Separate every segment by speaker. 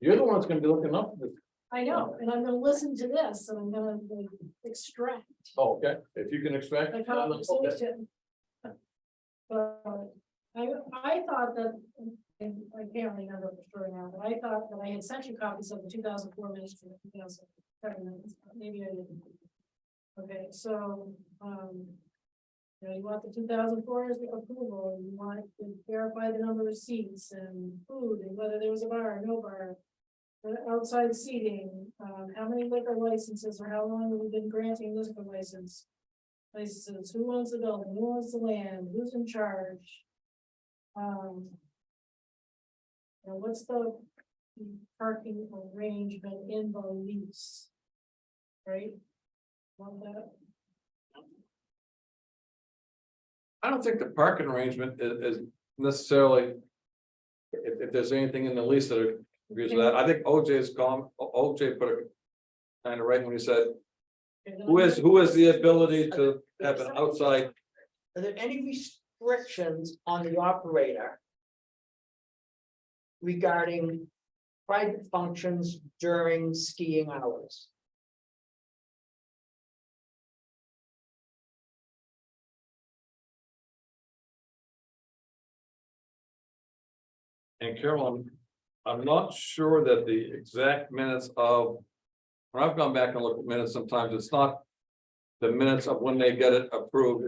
Speaker 1: You're the one that's gonna be looking up, this.
Speaker 2: I know, and I'm gonna listen to this, and I'm gonna like, extract
Speaker 1: oh, okay, if you can extract.
Speaker 2: the
Speaker 1: uh, okay.
Speaker 2: conversation. But I, I thought that, and I can't remember for sure now, but I thought that I had sent you copies of the two thousand four minutes and the two thousand seven minutes, but maybe I didn't. Okay, so, um, you know, you want the two thousand four as the approval, and you want to verify the number of seats and food, and whether there was a bar or no bar. The outside seating, um, how many liquor licenses or how long have we been granting liquor license? places, who owns the building, who owns the land, who's in charge? Um. And what's the parking arrangement in the lease? Right? Want that?
Speaker 1: I don't think the parking arrangement i- is, necessarily. If, if there's anything in the lease that agrees with that, I think OJ's com, O- OJ put it. Kind of right when he said, who has, who has the ability to have an outside,
Speaker 3: Are there any restrictions on the operator? Regarding private functions during skiing hours?
Speaker 1: and Carolyn. I'm not sure that the exact minutes of. When I've gone back and looked at minutes, sometimes it's not. The minutes of when they get it approved.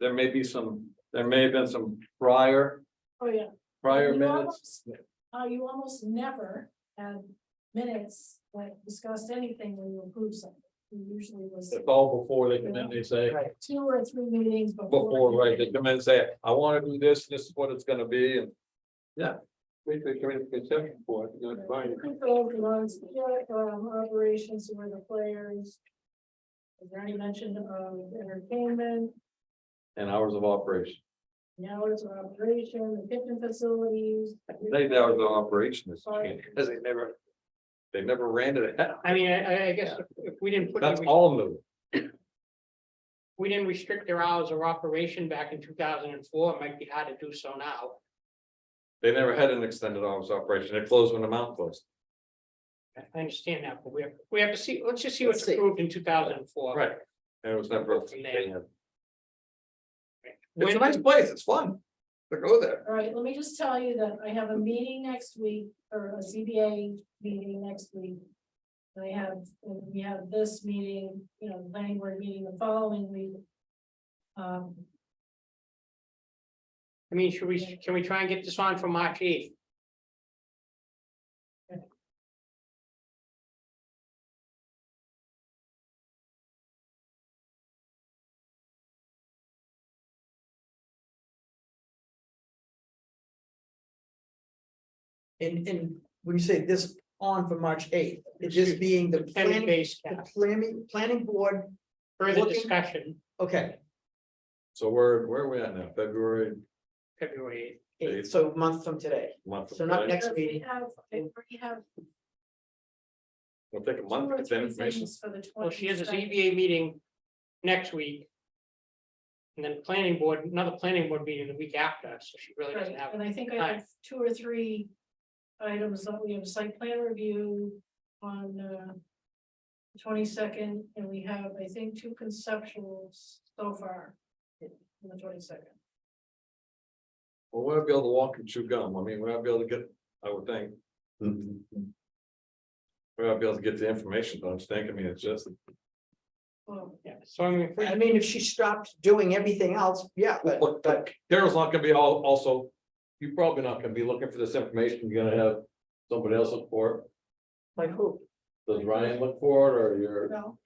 Speaker 1: There may be some, there may have been some prior,
Speaker 2: Oh, yeah.
Speaker 1: prior
Speaker 2: You
Speaker 1: minutes.
Speaker 2: almost- Uh, you almost never had minutes like discussed anything when you approve something. It usually was
Speaker 1: It's all before they come in, they say.
Speaker 3: Right,
Speaker 2: two or three meetings before.
Speaker 1: before, right, they come in and say, I wanna do this, this is what it's gonna be, and, yeah. We could come in and consent for it, you know, fine.
Speaker 2: Control belongs, yeah, um, operations where the players. Is there any mention of um, entertainment,
Speaker 1: And hours of operation,
Speaker 2: the hours of operation, the kitchen facilities?
Speaker 1: they, the hours of operation is, because they never, they never ran it,
Speaker 4: I mean, I, I- I guess if- if we didn't put, any
Speaker 1: that's
Speaker 4: res-
Speaker 1: all new.
Speaker 4: we didn't restrict their hours of operation back in two thousand and four, it might be hard to do so now.
Speaker 1: They never had an extended hours of operation, it closed when the mountain closed.
Speaker 4: I- I understand that, but we have, we have to see, let's just see
Speaker 3: Let's
Speaker 4: what's
Speaker 3: see.
Speaker 4: approved in two thousand and four.
Speaker 1: Right. And it was never.
Speaker 4: From there.
Speaker 1: It's a nice place, it's fun, to go there.
Speaker 2: All right, let me just tell you that I have a meeting next week, or a CBA meeting next week. And I have, and we have this meeting, you know, the planning board meeting the following week. Um,
Speaker 4: I mean, should we, can we try and get this on for March eighth?
Speaker 3: and, and when you say this on for March eighth, it just being the
Speaker 4: Ten
Speaker 3: planning,
Speaker 4: days,
Speaker 3: the planning, planning board,
Speaker 4: further
Speaker 3: Looking-
Speaker 4: discussion,
Speaker 3: okay.
Speaker 1: So we're, where are we at now, February
Speaker 4: February eighth.
Speaker 3: eight,
Speaker 1: Eighth.
Speaker 3: so a month from today,
Speaker 1: month?
Speaker 3: So not
Speaker 1: right?
Speaker 3: next-
Speaker 2: because we
Speaker 3: meeting.
Speaker 2: have, we have
Speaker 1: We'll take a
Speaker 2: two
Speaker 1: month,
Speaker 2: or
Speaker 1: get that
Speaker 2: three
Speaker 1: information,
Speaker 2: things for the twenty.
Speaker 4: Well, she has a ZBA meeting next week. And then planning board, another planning board meeting the week after, so she really
Speaker 2: Right,
Speaker 4: doesn't have,
Speaker 2: and I think I
Speaker 4: time.
Speaker 2: have two or three items that we have site plan review on uh. Twenty-second, and we have, I think, two conceptuals so far. On the twenty-second,
Speaker 1: well, we'll be able to walk and chew gum, I mean, we'll be able to get, I would think. We'll be able to get the information, don't you think, I mean, it's just,
Speaker 2: well,
Speaker 4: yeah, so I mean, if we-
Speaker 3: I mean, if she stopped doing everything else, yeah, but,
Speaker 1: Look,
Speaker 3: but
Speaker 1: Carol's not gonna be all, also, you're probably not gonna be looking for this information, you're gonna have. Somebody else look for
Speaker 3: like who?
Speaker 1: it, does Ryan look for it, or you're,
Speaker 2: no,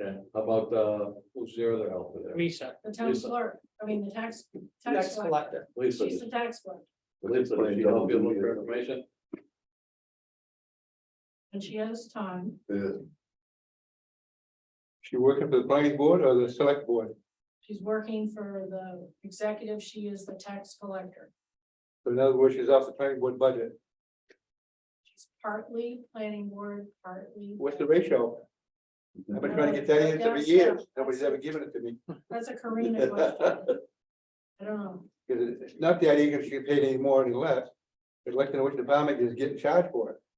Speaker 1: okay, how about, uh, who's the other helper there?
Speaker 4: Lisa,
Speaker 2: the town
Speaker 1: Lisa.
Speaker 2: clerk, I mean, the tax, tax
Speaker 3: Tax
Speaker 2: collector,
Speaker 3: collector,
Speaker 1: Lisa,
Speaker 2: she's the tax collector,
Speaker 1: Lisa, does she help you look for information?
Speaker 2: and she has time.
Speaker 1: She working for the planning board or the select board,
Speaker 2: She's working for the executive, she is the tax collector,
Speaker 1: in other words, she's off the planning board budget,
Speaker 2: she's partly planning board, partly.
Speaker 1: ratio? I've
Speaker 2: been trying to get that answer for years. Nobody's ever
Speaker 1: given it to me.
Speaker 2: That's a Karina question. I don't know.
Speaker 5: Because it's not the idea if she get paid any more or any less. It's like, you know, which department is getting charged for it.